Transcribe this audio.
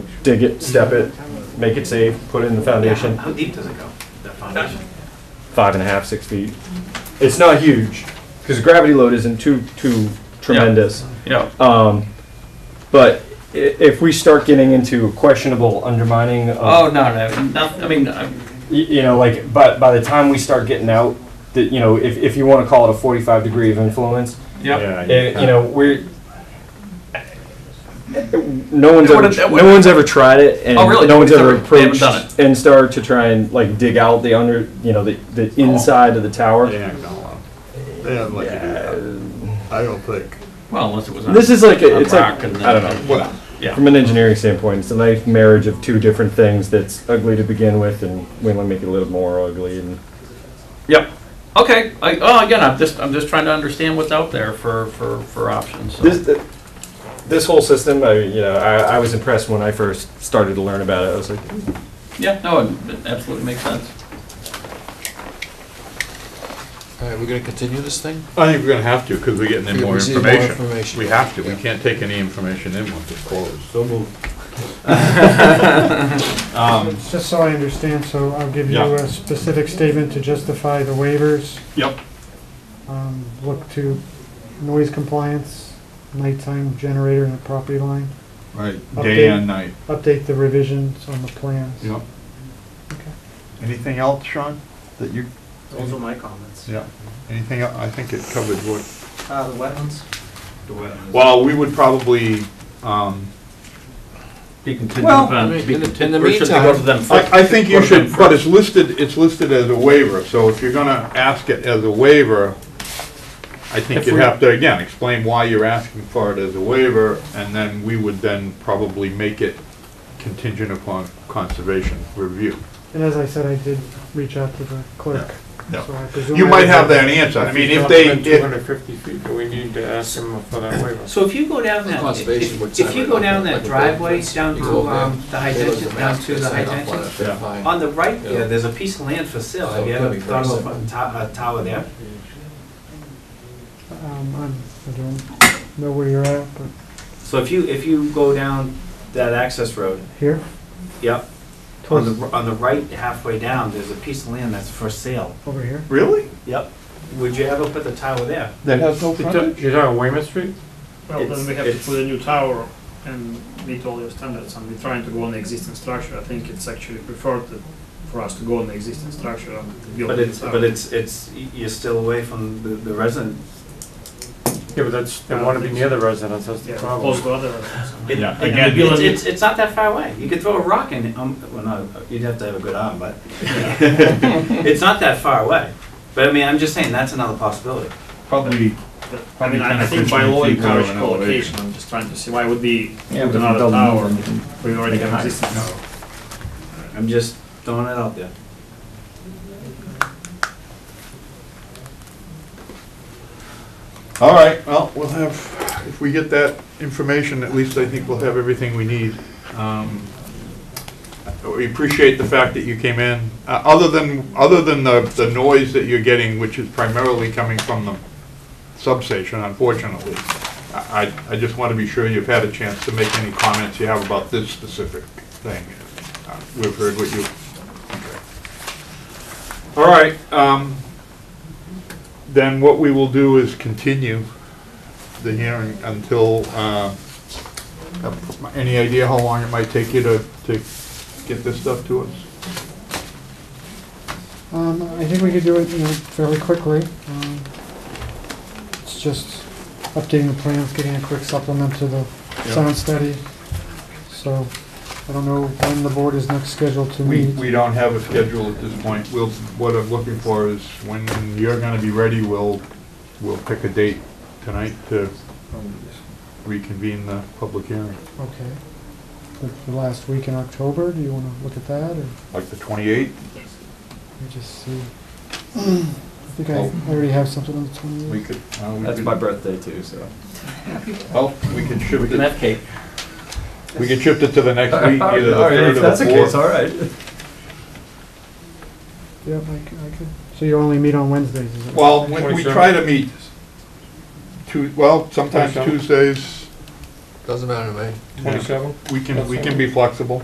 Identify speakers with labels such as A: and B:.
A: dig it, step it, make it safe, put it in the foundation,
B: How deep does it go, that foundation?
A: five and a half, six feet. It's not huge, because gravity load isn't too, too tremendous.
C: Yeah,
A: Um, but i- if we start getting into questionable undermining of
C: oh, no, no, no, I mean, uh, I-
A: Y- you know, like, but by the time we start getting out, that you know, if, if you want to call it a 45 degree of influence,
C: yeah,
A: eh, you know, we're no one's
C: It
A: ever,
C: wouldn't- it
A: no one's ever tried it, and
C: Oh, really?
A: no one's
C: Nobody's
A: ever
C: ever- they haven't
A: approached
C: done
A: NSTAR to try and like dig out the under, you know, the, the
C: Oh.
A: inside of the tower.
B: Yeah, not gonna allow
D: They haven't let you do that. I don't think.
C: well, unless it was. on-
A: This is like a,
C: on
A: it's
C: rock
A: like
C: and
A: I don't
C: then-
A: know.
D: Well,
C: Yeah.
A: From an engineering standpoint, it's a nice marriage of two different things that's ugly to begin with, and we want to make it a little more ugly. And
C: Yep. Okay. I, oh, again, I'm just I'm just trying to understand what's out there for for for options. so.
A: This, th- this whole system, I, you know, I, I was impressed when I first started to learn about it. I was like,
C: yeah. No, it, it absolutely makes sense.
E: All right, we're gonna continue this thing?
D: I think we're gonna have to, because we're getting in
E: We
D: more
E: receive more
D: information.
E: information.
D: We have to, we
E: Yeah.
D: can't take any information in once it's closed. So move.
F: Just so I understand, so I'll give you
D: Yeah.
F: a specific statement to justify the waivers.
C: Yep.
F: Um, Look to noise compliance, nighttime generator in the property line,
D: Right,
F: Day and
D: night.
F: update the revisions on the plans.
D: Yep.
F: Okay.
D: Anything else, Sean, that you,
B: Those are my comments.
D: yeah, anything, el- I think it covered what
B: Uh, the wetlands? The wetlands.
D: Well, we would probably, um,
C: Be contingent
D: Well,
C: upon.
E: I mean,
C: be
E: in the- in
C: contingent-
E: the
C: or should they go to
E: meantime-
C: them first?
D: I, I think
C: Go
D: you
C: to them
D: should, but
C: first.
D: it's listed, it's listed as a waiver, so if you're gonna ask it as a waiver, I think
C: If
D: you'd
C: we-
D: have to, again, explain why you're asking for it as a waiver, and then we would then probably make it contingent upon conservation review.
F: And as I said, I did reach out to the clerk.
D: Yeah.
F: so I presume
D: You
F: I
D: might
F: would
D: have that answer, I mean, if they,
G: Two
D: if,
G: hundred fifty feet, do we need to ask them for that waiver?
B: So if you go down that,
E: Conservation would
B: if if you
E: sign
B: go
E: it,
B: down that
E: like a
B: driveway,
E: building.
B: down
E: You
B: to, um,
E: go there,
B: the high
E: they look at
B: tension,
E: the
B: down
E: map,
B: to
E: they
B: the
E: sign
B: high
E: off on it,
B: tension,
E: they're
D: Yeah.
E: fine.
B: on the right
E: Yeah.
B: there, there's a piece of land for sale.
E: So
B: Have you
E: it could
B: ever
E: be
B: thought
E: very
B: of putting to- a tower there?
F: have- um, I'm- I don't know where you're at, but
B: So if you, if you go down that access road,
F: here,
B: yep, on the, on the right halfway down, there's a piece of land that's for sale.
F: over here.
D: really?
B: Yep. Would you ever put the tower there?
D: That has no
G: You're talking-
D: frontage?
G: you're talking Weymouth Street?
H: Well,
B: It's-
H: then we have to
B: it's-
H: put a new tower and meet all your standards, and we're trying to go on the existing structure. I think it's actually preferred that- for us to go on the existing structure and build.
B: But
H: the
B: it's,
H: tower.
B: but it's, it's, y- you're still away from the, the resident.
G: Yeah, but that's, they wanna be near the residence, that's
H: Yeah,
G: the
H: close
G: problem.
H: to other.
B: It-
D: Yeah,
B: it-
D: again-
B: It's, it's, it's not that far away. You could throw a rock in, it, um, well, not, you'd have to have a good arm, but. It's not that far away. But I mean, I'm just saying, that's another possibility.
D: Probably.
H: But, I
D: Probably
H: mean, I I
D: 10
H: think
D: or
H: by
D: 15
H: law you
D: feet lower
H: encourage
D: than
H: co-location,
D: elevation.
H: I'm just trying to see why would we
A: Yeah,
H: put
A: but if it
H: another
A: doesn't
H: tower?
A: move,
H: We already have
B: hide it.
H: existing tower.
B: I'm just throwing it out there.
D: All right, well, we'll have, if we get that information, at least I think we'll have everything we need. Um, We appreciate the fact that you came in, Uh, other than, other than the, the noise that you're getting, which is primarily coming from the substation, unfortunately. I, I- I just want to be sure you've had a chance to make any comments you have about this specific thing. Uh, We've heard what you, okay. All right, um, then what we will do is continue the hearing until, uh, any idea how long it might take you to, to get this stuff to us?
F: Um, I think we could do it, you know, fairly quickly. Um, It's just updating the plans, getting a quick supplement to the
D: Yeah.
F: sound study. So I don't know when the board is next scheduled to
D: We,
F: meet.
D: we don't have a schedule at this point. We'll, what I'm looking for is when you're gonna be ready, we'll, we'll pick a date tonight to reconvene the public hearing.
F: Okay. The the last week in October, do you want to look at that or
D: Like the twenty-eighth?
F: we just see? I think I I already have something on the 28th.
D: We could. uh, we
A: that's
D: could-
A: my birthday too, so.
D: Well, we can shift
C: Can
D: it,
C: have cake.
D: we can shift it to the next week, either the
A: All right,
D: third or
A: if Oh, that's
D: the
A: the case,
D: fourth.
A: all right.
F: Yep, I c- I could. So you only meet on Wednesdays, is it?
D: Well, we we
G: 27th.
D: try to meet two, well, sometimes
G: 27th.
D: Tuesdays,
E: Doesn't matter to me.
D: We can, we can be flexible.